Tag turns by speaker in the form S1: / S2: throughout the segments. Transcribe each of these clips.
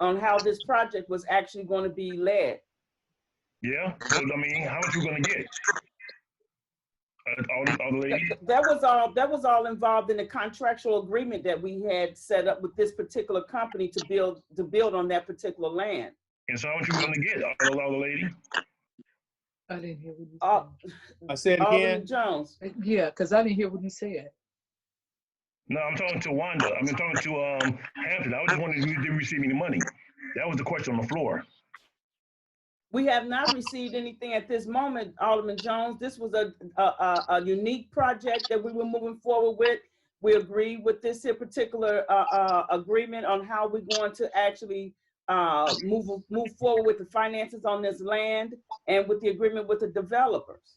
S1: on how this project was actually going to be led.
S2: Yeah,
S1: Uh-huh.
S2: so, I mean, how much you gonna get? Uh, all the, all the ladies?
S1: That was all, that was all involved in the contractual agreement that we had set up with this particular company to build, to build on that particular land.
S2: And so how much you gonna get, all the, all the ladies?
S3: I didn't hear what you
S1: Uh,
S4: I said
S1: Alderman
S4: again,
S1: Jones,
S3: said. Yeah, because I didn't hear what you said.
S2: No, I'm talking to Wanda, I'm talking to, um, Hampton, I was just wondering if you did receive any money. That was the question on the floor.
S1: we have not received anything at this moment, Alderman Jones. This was a, a, a, a unique project that we were moving forward with. We agreed with this here particular, uh, uh, agreement on how we're going to actually, uh, move, move forward with the finances on this land and with the agreement with the developers.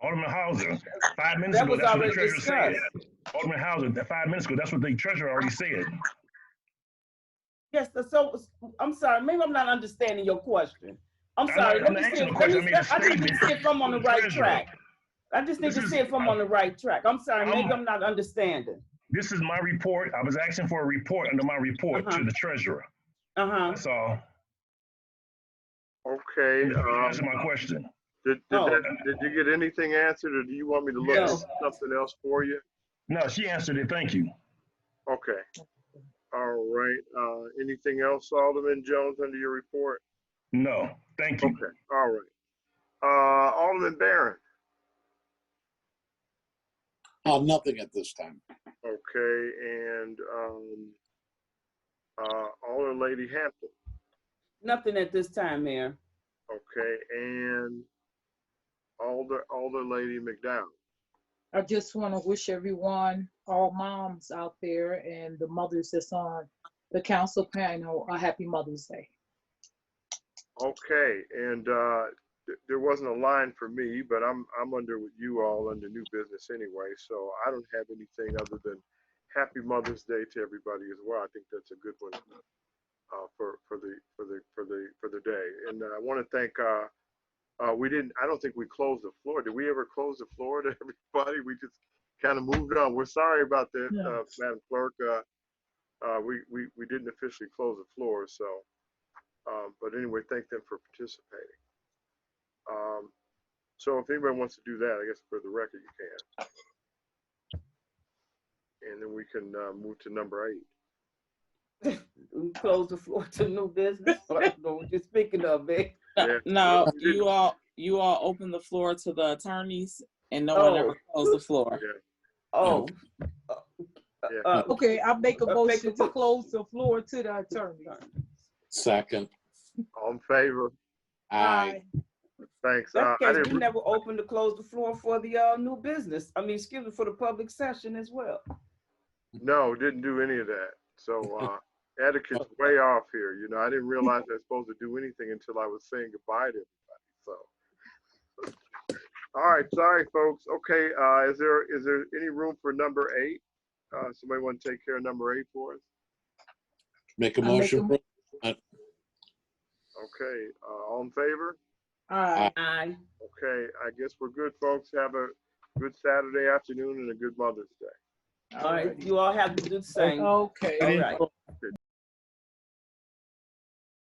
S2: Alderman Hauser, five minutes
S1: That
S2: ago,
S1: was
S2: that's what the
S1: already
S2: treasurer said. Alderman Hauser, that five minutes ago, that's what the treasurer already said.
S1: Yes, the- so, I'm sorry, maybe I'm not understanding your question. I'm
S2: I'm
S1: sorry,
S2: not-
S1: let
S2: I'm
S1: me see,
S2: not asking a
S1: let
S2: question,
S1: me,
S2: I made a
S1: I need to see if I'm on the right
S2: Treasurer,
S1: track. I just need
S2: This
S1: to
S2: is-
S1: see if I'm on the right track. I'm sorry, maybe
S2: I'm-
S1: I'm not understanding.
S2: This is my report, I was asking for a report under my report to
S1: Uh-huh.
S2: the treasurer,
S1: Uh-huh.
S2: that's all.
S5: Okay, um,
S2: Answer my question.
S5: did, did,
S1: Oh.
S5: that- did you get anything answered or do you want me to look at
S1: Yes.
S5: something else for you?
S2: No, she answered it, thank you.
S5: Okay. All right, uh, anything else, Alderman Jones, under your report?
S2: No, thank you.
S5: Okay, all right. Uh, Alderman Barron,
S6: Uh, nothing at this time.
S5: okay, and, um, uh, Alderman Lady Hampton,
S1: Nothing at this time, Mayor.
S5: okay, and Alder, Alder Lady McDowell.
S3: I just want to wish everyone, all moms out there and the mothers that's on the council panel, a happy Mother's Day.
S5: Okay, and uh, th- there wasn't a line for me, but I'm, I'm under with you all under new business anyway, so I don't have anything other than happy Mother's Day to everybody as well. I think that's a good one uh, for, for the, for the, for the, for the day. And I want to thank, uh, uh, we didn't, I don't think we closed the floor. Did we ever close the floor to everybody? We just kind of moved on. We're sorry about that,
S3: No.
S5: uh, Madam Clerk. Uh, uh, We, we, we didn't officially close the floor, so. Um, but anyway, thank them for participating. Um, so if anybody wants to do that, I guess for the record, you can. And then we can, uh, move to number eight.
S1: We close the floor to new business. I don't know what you're speaking of, Vic.
S5: Yeah.
S7: No,
S5: Well, you
S7: you all, you all open the floor to the attorneys and no
S1: Oh.
S7: one ever closed the floor.
S1: Oh. Uh,
S5: Yeah.
S1: uh,
S3: Okay, I make a
S1: Uh, make
S3: motion
S1: a-
S3: to close the floor to the attorney.
S6: Second,
S5: All in favor?
S6: I,
S5: Thanks. Uh,
S1: That's
S5: I
S1: case, we
S5: didn't, re-
S1: never opened to close the floor for the, uh, new business. I mean, excuse me, for the public session as well.
S5: no, didn't do any of that. So, uh, etiquette's way off here. You know, I didn't realize I was supposed to do anything until I was saying goodbye to everybody, so. All right, sorry, folks. Okay, uh, is there, is there any room for number eight? Uh, somebody want to take care of number eight for us?
S6: make a
S3: I make a
S6: motion.
S3: mo-
S5: Okay, uh, all in favor?
S3: Aye.
S1: Aye.
S5: Okay, I guess we're good, folks. Have a good Saturday afternoon and a good Mother's Day.
S1: All right, you all have to do the same.
S3: Okay.
S1: All right.